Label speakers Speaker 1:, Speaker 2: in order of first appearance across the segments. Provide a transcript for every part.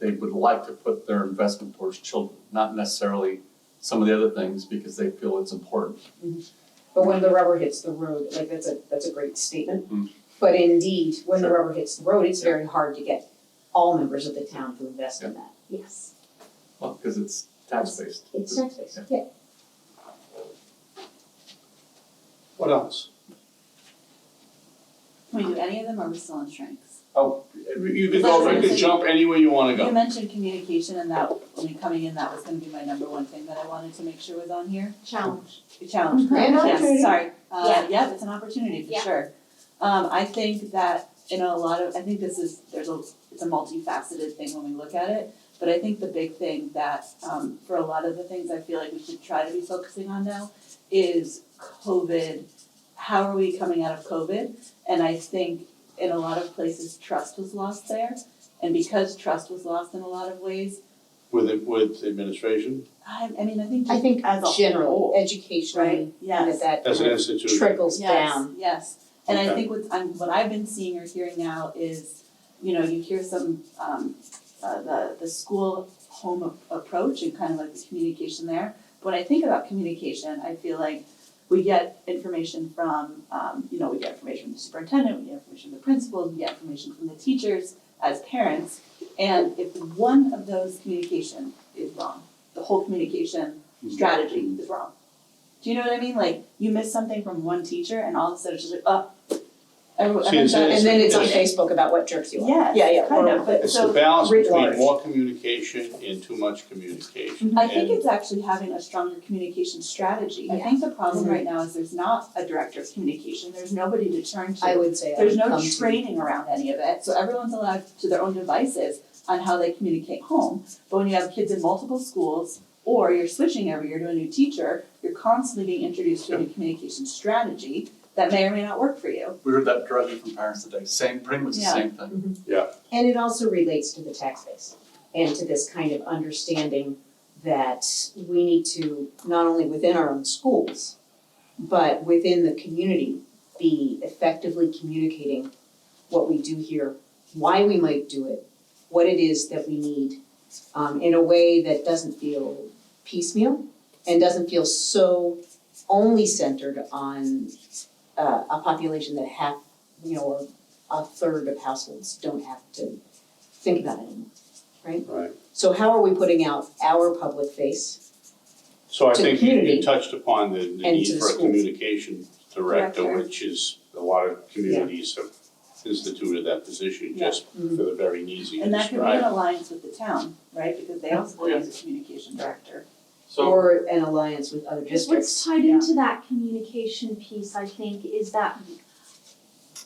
Speaker 1: they would like to put their investment towards children, not necessarily some of the other things because they feel it's important.
Speaker 2: But when the rubber hits the road, like that's a, that's a great statement.
Speaker 1: Mhm.
Speaker 2: But indeed, when the
Speaker 1: Sure.
Speaker 2: rubber hits the road, it's very hard to get all members of the town to invest in that.
Speaker 3: Yes,
Speaker 1: Well, because it's tax-based.
Speaker 3: it's tax based,
Speaker 1: Yeah.
Speaker 3: yeah.
Speaker 4: What else?
Speaker 5: Can we do any of them or are we still on strengths?
Speaker 4: You could go, you could jump anywhere you wanna
Speaker 5: You
Speaker 4: go.
Speaker 5: mentioned communication and that, I mean, coming in, that was gonna be my number one thing that I wanted to make sure was on here.
Speaker 3: Challenge.
Speaker 5: The challenge, correct?
Speaker 3: An
Speaker 5: Yes,
Speaker 3: opportunity.
Speaker 5: sorry. Uh,
Speaker 3: Yeah.
Speaker 5: yeah, it's an opportunity for
Speaker 3: Yeah.
Speaker 5: sure. Um, I think that in a lot of, I think this is, there's a, it's a multifaceted thing when we look at it. But I think the big thing that, um, for a lot of the things I feel like we should try to be focusing on now is COVID. How are we coming out of COVID? And I think in a lot of places, trust was lost there. And because trust was lost in a lot of ways,
Speaker 4: With it, with administration,
Speaker 5: I, I mean, I think
Speaker 2: I think
Speaker 5: as a
Speaker 2: general,
Speaker 5: whole, right?
Speaker 2: educationally,
Speaker 5: Yes.
Speaker 2: that that
Speaker 4: as an
Speaker 2: kind of
Speaker 4: institution.
Speaker 2: trickles down.
Speaker 5: Yes, yes. And I
Speaker 4: Okay.
Speaker 5: think what I'm, what I've been seeing or hearing now is, you know, you hear some, um, uh, the, the school home a- approach and kind of like the communication there. When I think about communication, I feel like we get information from, um, you know, we get information from the superintendent, we get information from the principals, we get information from the teachers as parents. And if one of those communication is wrong, the whole communication strategy is wrong. Do you know what I mean? Like you miss something from one teacher and all of a sudden it's just like, oh. everyone-
Speaker 4: See, it's-
Speaker 5: everyone's-
Speaker 2: And then it's on
Speaker 4: Yes.
Speaker 2: Facebook about what jerks you are.
Speaker 5: Yes,
Speaker 2: Yeah, yeah,
Speaker 5: kind
Speaker 2: or-
Speaker 5: of, but
Speaker 4: It's
Speaker 5: so-
Speaker 4: the balance
Speaker 2: writ
Speaker 4: between
Speaker 2: large.
Speaker 4: more communication and too much communication.
Speaker 5: I think
Speaker 4: And
Speaker 5: it's actually having a stronger communication strategy. I think the problem
Speaker 2: Mhm.
Speaker 5: right now is there's not a director of communication, there's nobody to turn
Speaker 2: I
Speaker 5: to.
Speaker 2: would say I
Speaker 5: There's
Speaker 2: would
Speaker 5: no
Speaker 2: come to-
Speaker 5: training around any of it, so everyone's allowed to their own devices on how they communicate home. But when you have kids in multiple schools, or you're switching every year to a new teacher, you're constantly being introduced to a new communication strategy that may or may not work for you.
Speaker 1: We heard that directly from parents today, same, pretty much the same thing.
Speaker 2: And it also relates to the tax base and to this kind of understanding that we need to, not only within our own schools, but within the community, be effectively communicating what we do here, why we might do it, what it is that we need, um, in a way that doesn't feel piecemeal and doesn't feel so only centered on uh, a population that half, you know, or a third of households don't have to think about it anymore.
Speaker 4: Right,
Speaker 2: So how are we putting out our public face?
Speaker 4: so I
Speaker 2: To the
Speaker 4: think you, you
Speaker 2: community.
Speaker 4: touched upon the, the
Speaker 2: And
Speaker 4: need
Speaker 2: to the
Speaker 4: for a
Speaker 2: schools.
Speaker 4: communication director,
Speaker 5: Director.
Speaker 4: which is, a lot of communities have instituted that position
Speaker 5: Yeah.
Speaker 4: just for the very easy to
Speaker 5: And that could be
Speaker 4: describe.
Speaker 5: an alliance with the town, right? Because they also use a communication director.
Speaker 1: So,
Speaker 2: Or an alliance with other
Speaker 3: Just
Speaker 2: districts?
Speaker 3: what's tied into that communication piece, I think, is that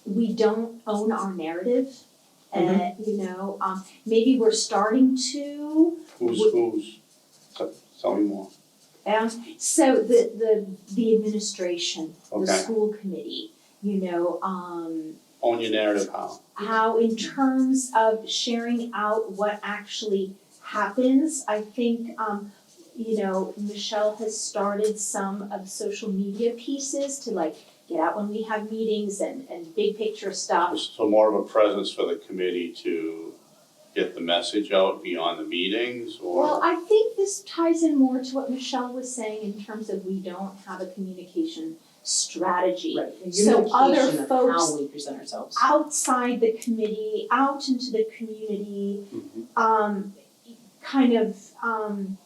Speaker 3: we don't own our narrative. And, you know, um, maybe we're starting to,
Speaker 4: Who's,
Speaker 3: Would-
Speaker 4: who's, tell- tell me more,
Speaker 3: And um, so the the the administration, the
Speaker 4: okay,
Speaker 3: school committee, you know, um
Speaker 4: own your narrative, how?
Speaker 3: how in terms of sharing out what actually happens, I think um you know, Michelle has started some of social media pieces to like get out when we have meetings and and big picture stuff.
Speaker 4: So more of a presence for the committee to get the message out beyond the meetings or?
Speaker 3: Well, I think this ties in more to what Michelle was saying in terms of we don't have a communication strategy.
Speaker 2: Right, the
Speaker 3: So other
Speaker 2: unification of how
Speaker 3: folks-
Speaker 2: we present ourselves.
Speaker 3: outside the committee, out into the community,
Speaker 4: Mhm.
Speaker 3: um, kind of, um,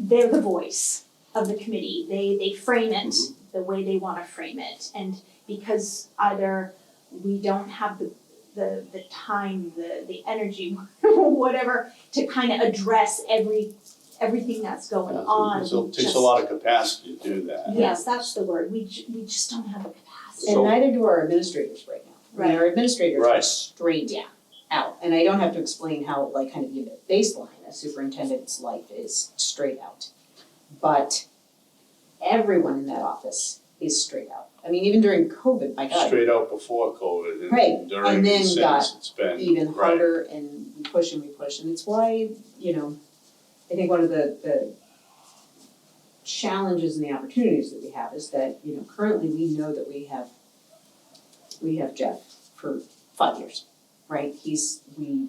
Speaker 3: they're the voice of the committee. They, they frame it the
Speaker 4: Mm-hmm.
Speaker 3: way they want to frame it. And because either we don't have the, the, the time, the, the energy, whatever, to kind of address every, everything that's going on.
Speaker 4: It's a- Takes
Speaker 3: just-
Speaker 4: a lot of capacity to do that.
Speaker 3: Yes, that's the word. We, ju- we just don't have the capacity.
Speaker 2: And
Speaker 4: So-
Speaker 2: neither do our administrators right now. I mean, Our administrators are
Speaker 4: Right.
Speaker 2: straight
Speaker 3: Yeah.
Speaker 2: out. And I don't have to explain how, like, kind of give a baseline, a superintendent's life is straight out. But everyone in that office is straight out. I mean, even during COVID, my God,
Speaker 4: Straight out before COVID
Speaker 2: Right,
Speaker 4: and during
Speaker 2: and
Speaker 4: the
Speaker 2: then
Speaker 4: since
Speaker 2: got
Speaker 4: it's been, right.
Speaker 2: even harder and we push and we push and it's why, you know, I think one of the the challenges and the opportunities that we have is that, you know, currently we know that we have we have Jeff for five years, right? He's we